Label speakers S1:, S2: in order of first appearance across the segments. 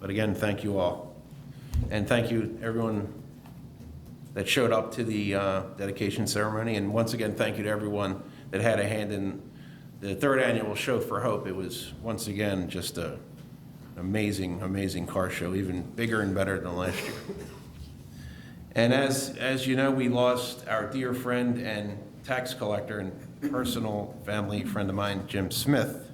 S1: But again, thank you all. And thank you, everyone that showed up to the uh, dedication ceremony. And once again, thank you to everyone that had a hand in the third annual Show for Hope. It was, once again, just a amazing, amazing car show, even bigger and better than last year. And as, as you know, we lost our dear friend and tax collector and personal family friend of mine, Jim Smith.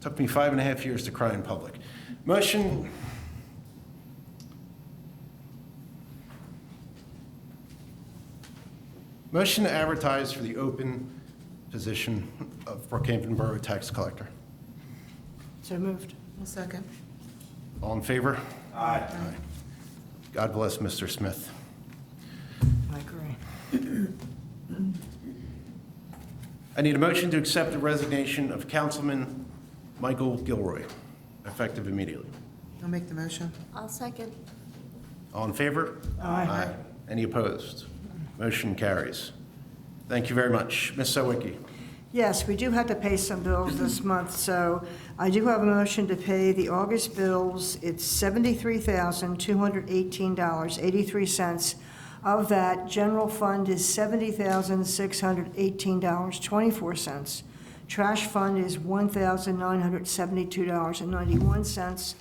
S1: Took me five and a half years to cry in public. Motion, motion to advertise for the open position of Brookhaven Borough Tax Collector.
S2: So moved.
S3: I'll second.
S1: All in favor? Aye. God bless Mr. Smith.
S2: I agree.
S1: I need a motion to accept the resignation of Councilman Michael Gilroy, effective immediately.
S3: I'll make the motion.
S4: I'll second.
S1: All in favor? Aye. Any opposed? Motion carries. Thank you very much. Ms. Sawicki,
S2: Yes, we do have to pay some bills this month, so I do have a motion to pay the August bills. It's $73,218.83. Of that, general fund is $70,618.24. Trash fund is $1,972.91.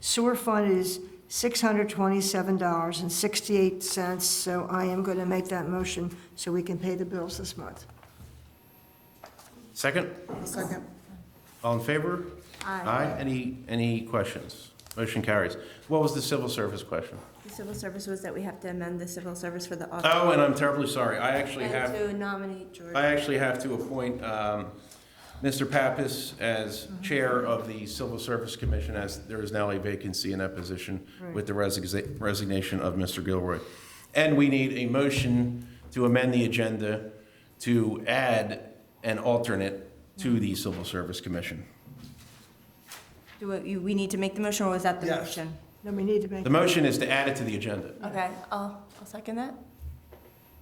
S2: Sewer fund is $627.68, so I am going to make that motion so we can pay the bills this month.
S1: second?
S3: I'll second.
S1: All in favor?
S4: Aye.
S1: Aye. Any, any questions? Motion carries. What was the civil service question?
S4: The civil service was that we have to amend the civil service for the
S1: Oh,
S4: audit.
S1: and I'm terribly sorry. I actually have.
S4: And to nominate George.
S1: I actually have to appoint um, Mr. Pappas as Chair of the Civil Service Commission, as there is now a vacancy in that position with the resigna- resignation of Mr. Gilroy. And we need a motion to amend the agenda to add an alternate to the Civil Service Commission.
S4: Do we- you- we need to make the motion, or was that the
S1: Yes.
S4: motion?
S2: Then we need to make.
S1: The motion is to add it to the agenda.
S4: Okay, I'll, I'll second that.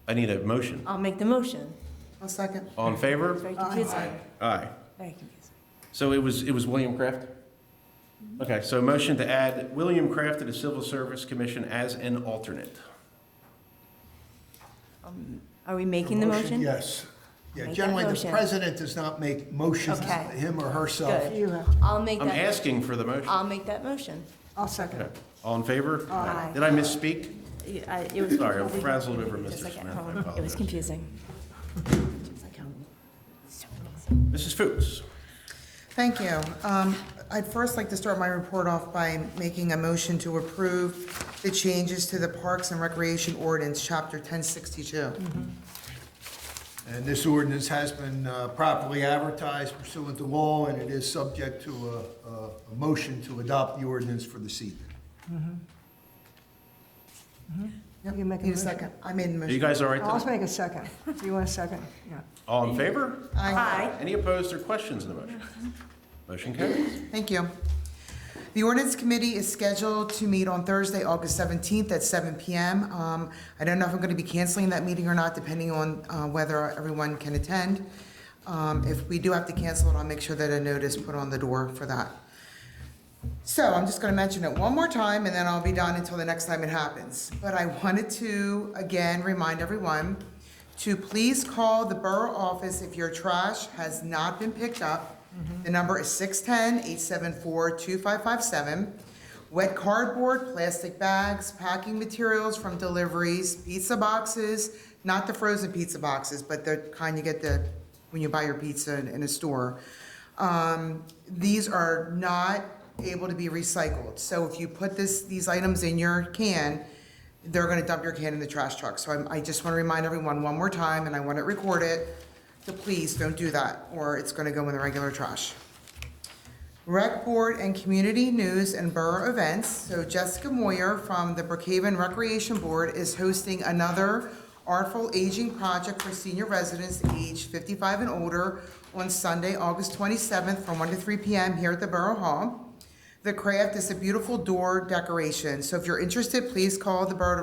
S1: I need a motion.
S4: I'll make the motion.
S3: I'll second.
S1: All in
S4: It's
S1: favor?
S4: very confusing.
S1: Aye.
S4: Very confusing.
S1: So it was, it was William Kraft? Okay, so a motion to add William Kraft to the Civil Service Commission as an alternate.
S4: Are we making the motion?
S5: Yes.
S4: Make
S5: Yeah,
S4: that
S5: generally, the
S4: motion.
S5: president does not make motions,
S4: Okay.
S5: him or herself.
S4: Good.
S2: You have,
S4: I'll make
S1: I'm
S4: that,
S1: asking for the motion.
S4: I'll make that motion.
S2: I'll second.
S1: Okay. All in favor?
S4: Aye.
S1: Did I misspeak?
S4: You- I- it was
S1: Sorry, I
S4: confusing.
S1: frazzled over
S4: Just
S1: Mr.
S4: like at
S1: Smith, I
S4: home. It
S1: apologize.
S4: was confusing. Just like home. So confusing.
S1: Mrs. Fuchs?
S3: Thank you. Um, I'd first like to start my report off by making a motion to approve the changes to the Parks and Recreation Ordinance, Chapter 1062.
S5: And this ordinance has been uh, properly advertised pursuant to law, and it is subject to a- a, a motion to adopt the ordinance for this evening.
S2: You can make a
S3: Need
S2: motion.
S3: a second? I made the
S1: Are you
S3: motion.
S1: guys all right?
S2: I'll
S1: today?
S2: make a second. Do you want a second? Yeah.
S1: All in favor?
S3: Aye.
S1: Any opposed or questions in the motion? Motion carries.
S3: Thank you. The ordinance committee is scheduled to meet on Thursday, August 17th at 7 PM. Um, I don't know if I'm going to be canceling that meeting or not, depending on uh, whether everyone can attend. Um, If we do have to cancel it, I'll make sure that a notice put on the door for that. So I'm just going to mention it one more time, and then I'll be done until the next time it happens. But I wanted to, again, remind everyone to please call the borough office if your trash has not been picked up. The number is 610-874-2557. Wet cardboard, plastic bags, packing materials from deliveries, pizza boxes, not the frozen pizza boxes, but the kind you get the, when you buy your pizza in- in a store. Um, These are not able to be recycled. So if you put this, these items in your can, they're gonna dump your can in the trash truck. So I'm, I just wanna remind everyone one more time, and I want it recorded, to please don't do that, or it's gonna go in the regular trash. Rec Board and Community News and Borough Events. So Jessica Moyer from the Brookhaven Recreation Board is hosting another Artful Aging Project for senior residents aged 55 and older on Sunday, August 27th, from 1 to 3 p.m. here at the Borough Hall. The craft is a beautiful door decoration. So if you're interested, please call the Borough